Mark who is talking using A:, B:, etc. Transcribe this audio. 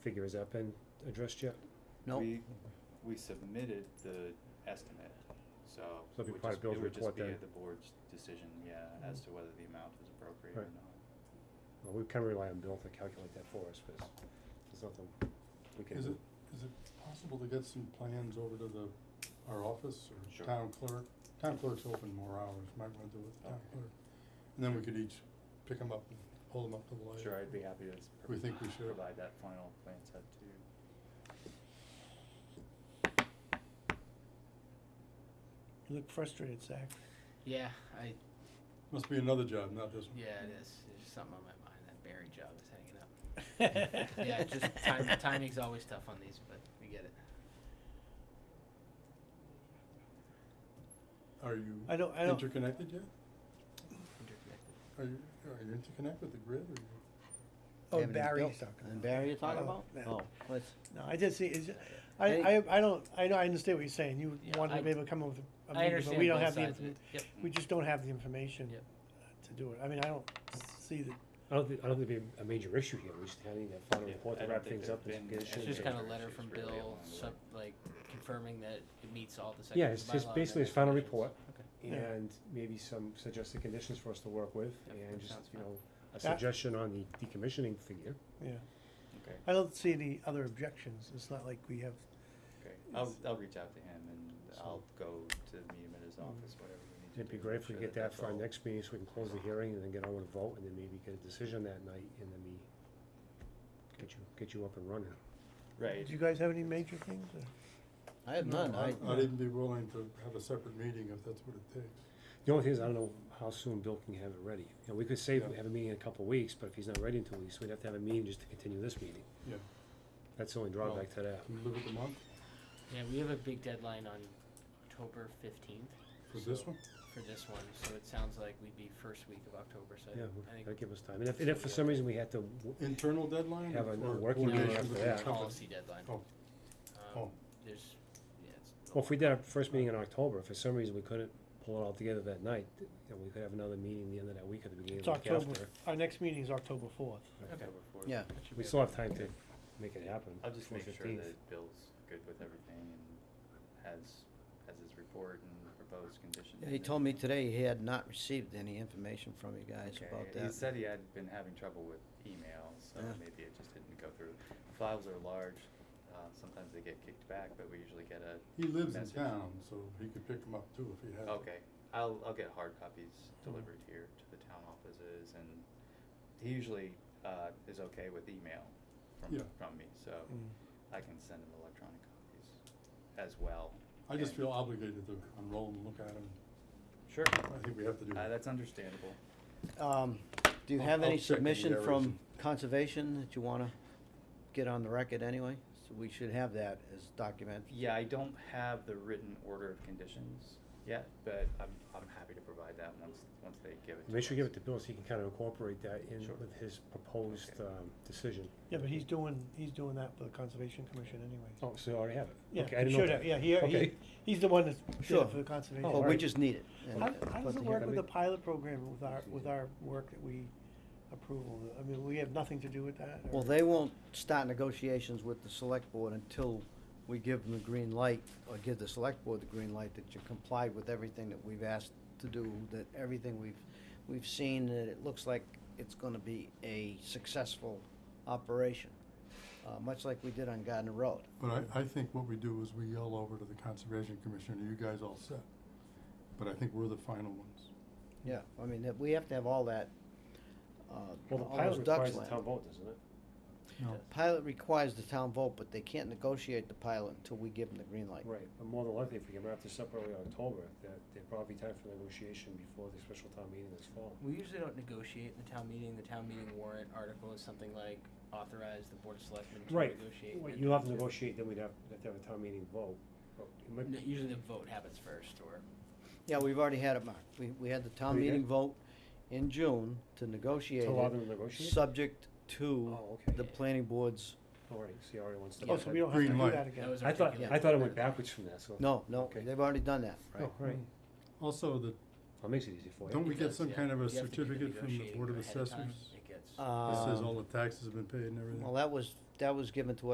A: figure, has that been addressed yet?
B: No,
C: We, we submitted the estimate, so.
A: So it'd be
C: it would
A: part of
C: just-
A: Bill's report
C: It would
A: then.
C: just be the board's decision, yeah, as to
D: Mm-hmm.
C: whether the amount was appropriate or
A: Right.
C: not.
A: Well, we kind of rely on Bill to calculate that for us, because there's nothing we can
E: Is
A: do.
E: it, is it possible to get some plans over to the, our office
C: Sure.
E: or town clerk? Town clerk's open more hours, might want to do it with the town
C: Okay.
E: clerk. And then we could each pick them up and hold them up to the light.
C: Sure, I'd be happy to s-
E: We think we should.
C: provide that final plan set to you.
F: You look frustrated, Zach.
B: yeah, I,
E: Must be another job, not this one.
B: yeah, it is, there's just something on my mind, that Barry job is hanging up. Yeah, just time, timing's always tough on these, but we get it.
E: Are you
F: I don't, I don't,
E: interconnected yet?
B: Interconnected.
E: Are you, are you interconnected with the grid or you?
F: oh,
D: Haven't even
F: Barry's
D: built.
F: talking
D: And
F: about.
D: Barry you're talking
F: Oh,
D: about?
F: yeah.
D: Oh, what's,
F: No, I just see, it's,
D: Any-
F: I, I, I don't, I know, I understand what you're saying, you
B: Yeah,
F: wanted
B: I-
F: to be able to come up with a
B: I
F: meeting, but
B: understand
F: we don't
B: both
F: have the,
B: sides of it,
F: inform-
B: yep,
F: we just don't have the information
B: Yep.
F: uh, to do it, I mean, I don't see that,
A: I don't think, I don't think it'd be a major issue here, we just kind of need that final
C: Yeah,
A: report
C: I
A: to
C: don't
A: wrap
C: think
A: things
C: there've
A: up. and
C: been
A: get it
C: any
B: it's
A: shipped
B: just
A: and-
B: kinda
C: major
B: letter from
C: issues really
B: Bill,
C: along the
B: sub, like,
C: way.
B: confirming that it meets all the sections
A: Yeah,
B: of
A: it's
B: the bylaw
A: just
B: and
A: basically
B: their
A: his final report,
B: definitions. Okay.
F: Yeah.
A: and maybe some suggested conditions for us to work with,
B: Yep,
A: and
B: that
A: just,
B: sounds
A: you
B: fine.
A: know, a
F: That-
A: suggestion on the decommissioning figure.
F: yeah.
C: Okay,
F: I don't see any other objections, it's not like we have,
C: okay, I'll, I'll reach out to him and
A: So-
C: I'll go to meet him at
D: Mm-hmm.
C: his office, whatever we need to do.
A: It'd be
C: to
A: great
C: make
A: if we
C: sure
A: get that
C: that's
A: for our
C: all-
A: next meeting, so we can close the hearing, and then get on with a vote, and then maybe get a decision that night, and then we get you, get you up and running.
C: Right,
F: do you guys have any major things, or?
D: I have
E: No,
D: none, I,
E: I'd even be willing to have a separate meeting if that's what it takes.
A: The only thing is, I don't know how soon Bill can have it ready. You know, we could say we
E: Yeah.
A: have a meeting in a couple of weeks, but if he's not ready in two weeks, we'd have to have a meeting just to continue this meeting.
E: Yeah.
A: That's the only drawback to that.
E: Can we live with the month
B: Yeah, we have a big deadline on October fifteenth
E: for this one?
B: for this one, so it sounds like we'd be first week of October, so I
A: Yeah,
B: think- I think
A: that'd give us time. And if, and if for some reason we had to, w-
E: Internal deadline
A: Have a-
E: or
A: a
E: for
A: working
B: meeting
E: coordination
A: after
E: with the
A: that.
E: company?
B: policy deadline.
E: Oh.
B: Um,
E: Oh.
B: There's, yeah, it's.
A: well, if we did our first meeting in October, if for some reason we couldn't pull it all together that night, th- you know, we could have another meeting the end of that week or the beginning of
F: It's
A: the week
F: October,
A: after.
F: our next meeting is October fourth.
B: Okay.
C: October fourth.
D: yeah,
B: that should
A: We
B: be
A: still
B: okay.
A: have time to make it happen.
C: I'll just
A: before
C: make sure
A: 15th.
C: that Bill's good with everything and has, has his report and proposed conditions.
D: he
C: and-
D: told me today he had not received any information from you guys about
C: He
D: that.
C: said he had been having trouble with email, so
D: Yeah.
C: maybe it just didn't go through. Files are large, uh, sometimes they get kicked back, but we usually get a
E: He lives in
C: message.
E: town, so he could pick them up too if he had. to.
C: Okay, I'll, I'll get hard copies
D: Mm-hmm.
C: delivered here to the town offices and he usually, uh, is okay with email from,
E: Yeah.
C: from me, so
F: Mm.
C: I can send him electronic copies as well.
E: I just
C: and-
E: feel obligated to unroll and look at them.
C: Sure,
E: I think we have to do
C: uh,
E: that.
C: that's understandable.
D: Um, do you
E: I'll-
D: have
E: I'll
D: any
E: check in the
D: submission
E: areas
D: from
E: and-
D: conservation that you wanna get on the record anyway? So we should have that as document.
C: Yeah, I don't have the written order of conditions yet, but I'm, I'm happy to provide that once, once they give it to us.
A: Make sure you give it to Bill so he can kind of incorporate that in
C: Sure.
A: with his proposed,
C: Okay.
A: um, decision.
F: Yeah, but he's doing, he's doing that for the Conservation Commission anyway.
A: Oh, so you already have it?
F: Yeah,
A: Okay, I
F: he
A: didn't know
F: should
A: that.
F: have, yeah, he, he,
A: Okay.
F: he's the one that's did
D: Sure.
F: it for the Conservation.
A: Oh,
D: But we
A: alright.
D: just need it. and
F: How,
D: put
F: how does it
D: together.
F: work with
A: Yeah.
F: the pilot program with our, with our work that we approval? I mean, we have nothing to do with that? or-
D: Well, they won't start negotiations with the select board until we give them the green light, or give the select board the green light that you complied with everything that we've asked to do, that everything we've, we've seen, that it looks like it's gonna be a successful operation, uh, much like we did on Gardner Road.
E: But I, I think what we do is we yell over to the Conservation Commission, are you guys all set? But I think we're the final ones.
D: Yeah, I mean, that, we have to have all that, uh,
A: Well, the
D: all
A: pilot
D: those ducks
A: requires a
D: lined.
A: town vote, doesn't it?
E: No,
D: Pilot requires the town vote, but they can't negotiate the pilot until we give them the green light.
A: Right, but more than likely, if we can wrap this up early October, that there'd probably be time for negotiation before the special town meeting this fall.
B: We usually don't negotiate in the town meeting. The town meeting warrant article is something like authorize the board of selectmen to
A: Right.
B: negotiate. with-
A: You'll have to negotiate, then we'd have, have to have a town meeting vote. But it might
B: No,
A: be-
B: Usually the vote happens first, or
D: Yeah, we've already had it, Mark. We, we had the
A: Oh,
D: town
A: you did?
D: meeting vote in June to negotiate
A: To allow
D: it,
A: them to negotiate?
D: subject to
A: Oh, okay.
D: the planning board's,
A: All right, so you already wants to.
F: Oh, so we don't have to
E: Green
F: do
E: light.
F: that
B: that
F: again?
B: was
A: I thought,
B: articulated
A: I thought it
B: better.
A: went backwards from that, so.
D: no, no,
A: Okay.
D: they've already done that,
A: Oh,
D: right?
A: right.
F: Mm.
E: also the,
A: Well, it makes it easy for you.
E: Don't we
B: It
E: get
B: does,
E: some
B: yeah.
E: kind of a
B: You have to do the
E: certificate from the
B: negotiating
E: Board of
B: ahead of time.
E: Assessors?
B: It gets-
E: it says all
D: Um,
E: the taxes have been paid and
D: well,
E: everything.
D: that was that was given to us